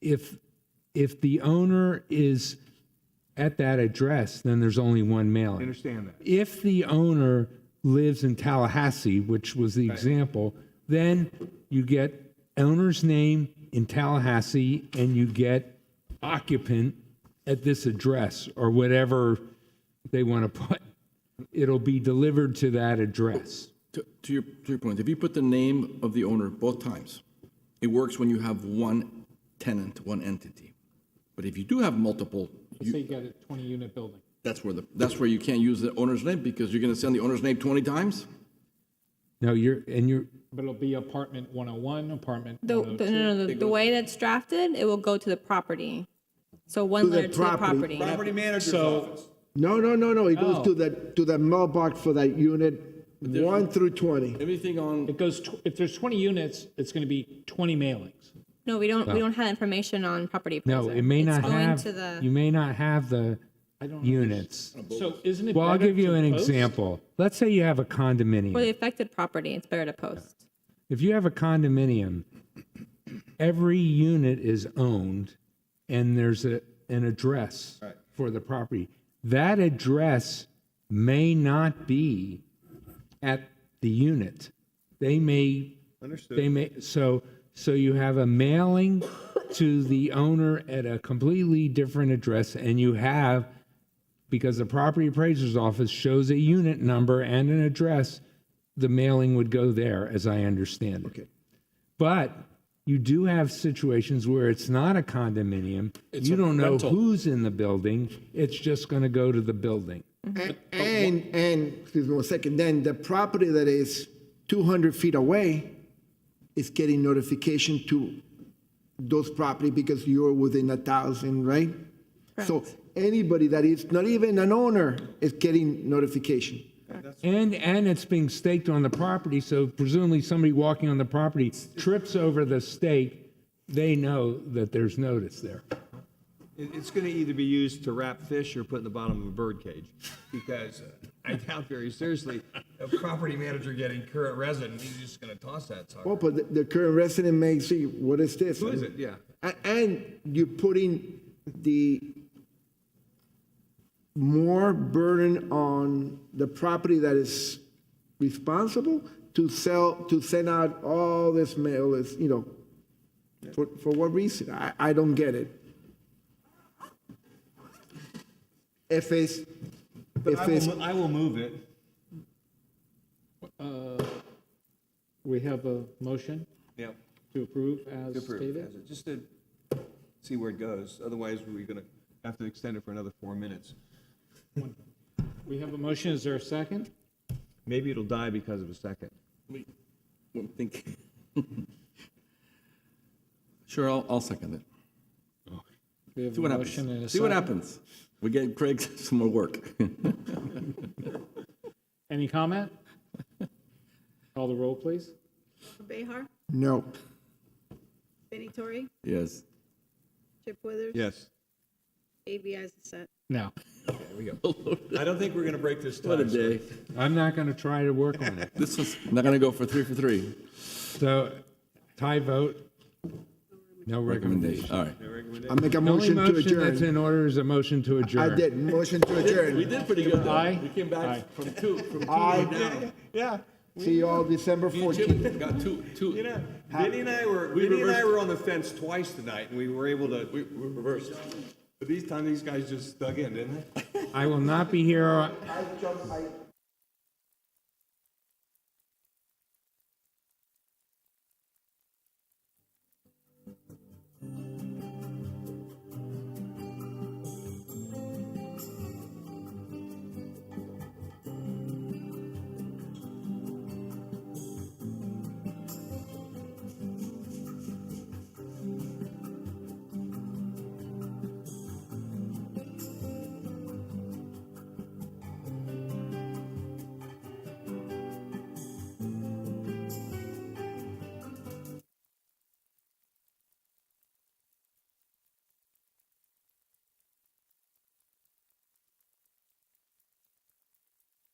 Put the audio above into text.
if if the owner is at that address, then there's only one mailing. Understand that. If the owner lives in Tallahassee, which was the example, then you get owner's name in Tallahassee and you get occupant at this address or whatever they want to put. It'll be delivered to that address. To, to your, to your point, if you put the name of the owner both times, it works when you have one tenant, one entity. But if you do have multiple, you, Say you got a 20-unit building. that's where the, that's where you can't use the owner's name because you're gonna send the owner's name twenty times? No, you're and you're But it'll be apartment 101, apartment The, the, no, no, the, the way that's drafted, it will go to the property. So one the letter to the property. property. manager's office. No, no, no, no, it Oh. goes to the, to the mailbox for that unit, one through 20. Everything on, It goes, tw- if there's 20 units, it's going to be 20 mailings. No, we don't, we don't have information on property appraiser. no, it may It's not going have to the- you may not have the units. So isn't it Well, I'll better give you to an post? example. Let's say you have a condominium. For the affected property, it's better to post. If you have a condominium, every unit is owned and there's a, an address for the property. That address may not be at the unit. They may, they may, so, so you have a mailing to the owner at a completely different address and you have because the property appraiser's office shows a unit number and an address, the mailing would go there, as I understand it. Okay. But you do have situations where it's not a condominium. you don't know who's in the building. It's just going to go to the building. And, and, and, excuse me one second, then the property that is 200 feet away is getting notification to those property because you're within a thousand, right? So anybody that is not even an owner is getting notification. And and it's being staked on the property, so presumably somebody walking on the property trips over the stake. They know that there's notice there. It- It's going to either be used to wrap fish or put in the bottom of a bird cage, because uh, I doubt very seriously a property manager getting current resident, he's just going to toss that Oh, sucker. but the- the current resident may see, what is this? Who is it? Yeah. A- And you're putting the more burden on the property that is responsible to sell, to send out all this mail is, you know, for, for what reason? I, I don't get it. If it's, if I it's, will, I will move it. We have a motion Yeah. to approve as stated. Just to see where it goes, otherwise we're going to have to extend it for another four minutes. We have a motion, is there a second? Maybe it'll die because of a second. wait, one thing. Sure, I'll, I'll second it. We have See a what motion and a happens. See what second. happens. We get Craig some more work. Any comment? Call the roll, please. Behar, no. Benny Torrey, Yes. Chip Withers. Yes. ABI is the set. No. I don't think we're going to break this What a time. so- day. I'm not going to try to work on it. This is, not gonna go for three for three. So tie vote, no recommendation. Recommendation, all right. I make a The only motion to motion that's adjourn. in order is a motion to I adjourn. did, motion to adjourn. We did pretty good though. Aye. We came back from two, from two Aye. right down. See you all December 14th. Chip got two, two. You know, Vinny and I were, We Vinny and I reversed. were on the fence twice tonight, and we were able We, to, we reversed. but these time, these guys just dug in, didn't they? I will not be here